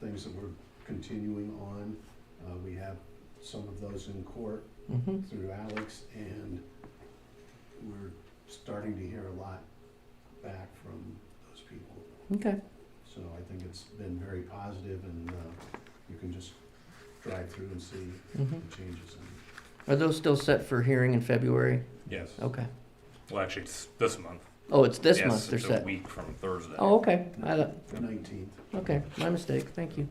things that we're continuing on. Uh, we have some of those in court Mm-hmm. through Alex, and we're starting to hear a lot back from those people. Okay. So I think it's been very positive, and uh, you can just drive through and see Mm-hmm. the changes. in it. Are those still set for hearing in February? Yes. Okay. Well, actually, it's this month. Oh, it's this yes, month they're it's a set. week from Thursday. Oh, okay. I, don't- The 19th. okay. My mistake. Thank you.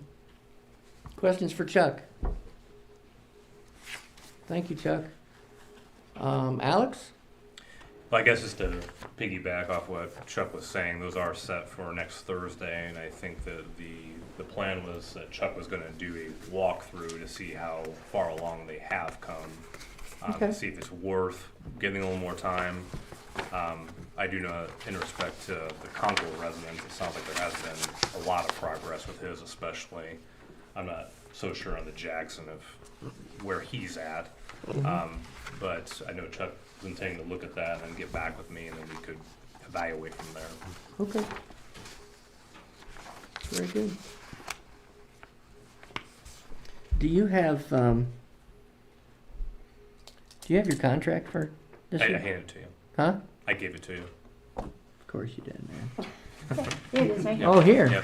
Questions for Chuck? Thank you, Chuck. Um, Alex? Well, I guess just to piggyback off what Chuck was saying, those are set for next Thursday, and I think that the the plan was that Chuck was going to do a walkthrough to see how far along they have come, um, Okay. to see if it's worth giving a little more time. Um, I do know, that in respect to the Conkle residents, it sounds like there has been a lot of progress with his, especially. I'm not so sure on the Jackson of where he's at. Um, but I know Chuck is intending to look at that and get back with me, and then we could evaluate from there. Okay. Very good. Do you have, um, do you have your contract for this I, I year? handed it to you. Huh? I gave it to you. Of course you did, man. It is, right? Oh, here. Yep.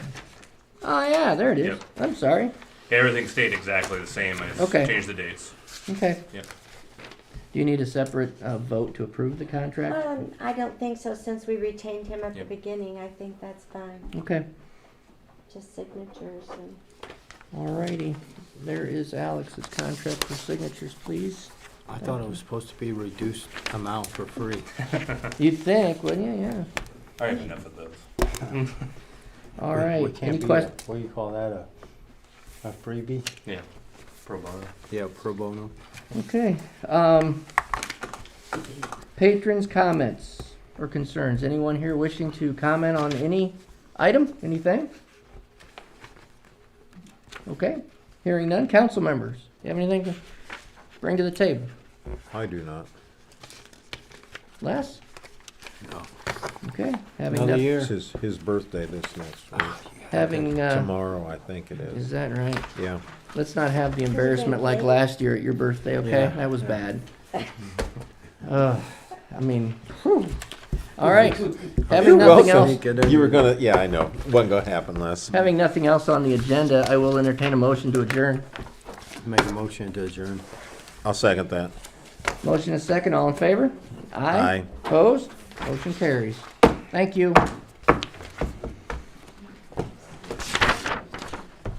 Oh, yeah, there it is. Yep. I'm sorry. Everything stayed exactly the same. I just Okay. changed the dates. Okay. Yep. Do you need a separate uh, vote to approve the contract? Um, I don't think so, since we retained him at the Yep. beginning, I think that's fine, Okay, just signatures and. all righty. There is Alex's contract for signatures, please. I thought it was supposed to be reduced amount for free. You'd think, wouldn't you? Yeah. All right, enough of those. All We- we right. can't Any be a- questions? What do you call that, a, a freebie? Yeah. Pro bono. Yeah, pro bono. Okay. Um, patrons' comments or concerns. Anyone here wishing to comment on any item, anything? Okay. Hearing none. Council members, you have anything to bring to the table? I do not. Les? No. Okay. Having Another noth- year. It's his, his birthday this next week. Having, uh, Tomorrow, I think it Ah. is is. that right? Yeah. Let's not have the embarrassment like late? last year at your birthday, okay? Yeah, That was yeah. bad. Ugh, I mean, whew. all right. Having nothing else, You were gonna, yeah, I know. Wasn't gonna happen less. having nothing else on the agenda, I will entertain a motion to adjourn. Make a motion to adjourn. I'll second that. Motion is second, all in favor? Aye. Opposed? Motion carries. Thank you.